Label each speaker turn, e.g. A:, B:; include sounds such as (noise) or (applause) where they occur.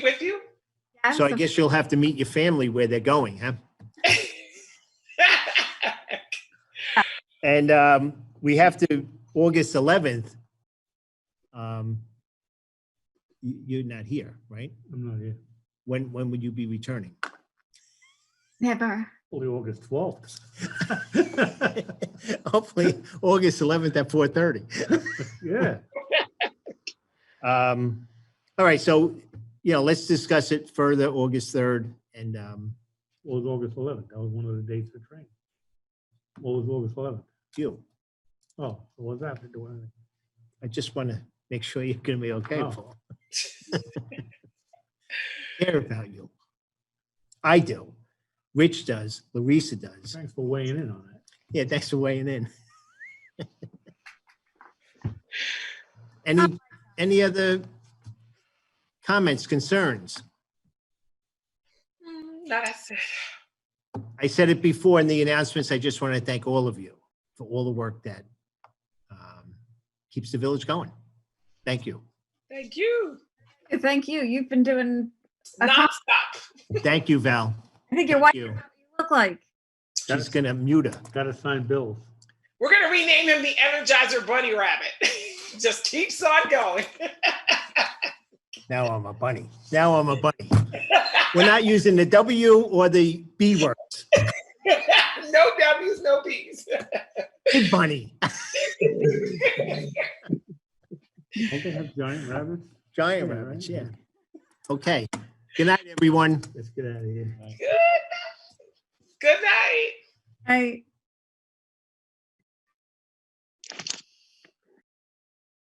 A: with you?
B: Yeah,
C: So I
B: so-
C: guess you'll have to meet your family where they're going, huh? And um, we have to, August 11th. um, you- You're not here, right?
D: I'm not here.
C: When, when would you be returning? (laughs)
B: Never.
D: Only August twelfth.
C: Hopefully, August 11th at 4:30.
D: Yeah,
C: Um, All right, so, you know, let's discuss it further, August 3rd. And um,
D: What was August eleventh. That was one of the dates of training. What was August eleventh?
C: you,
D: Oh, so what's that to do with anything?
C: I just want to make sure you're going to be okay,
D: Oh.
C: Paul. (laughs) Care about you. I do. Rich does. Larissa does.
D: Thanks for weighing in on that.
C: Yeah, thanks for weighing in. Any, any other comments, concerns?
A: Mm, No, that's it.
C: I said it before in the announcements, I just want to thank all of you for all the work that um, keeps the village going. Thank you.
A: Thank you.
B: Thank you. You've been doing, I can't-
A: Nonstop.
C: Thank you, Val.
B: I think your wife
C: you.
B: look like.
C: She's gonna mute her.
D: Got to sign bills.
A: We're going to rename him the Energizer Bunny Rabbit. (laughs) Just keeps on going. (laughs)
C: Now I'm a bunny. Now I'm a bunny. We're not using the W or the B words.
A: no W's, no P's.
C: Big bunny,
D: Don't they have giant rabbits?
C: giant
D: Yeah,
C: rabbits,
D: right.
C: yeah. Okay. Good night, everyone.
D: Let's get out of here.
A: Good night.
B: I.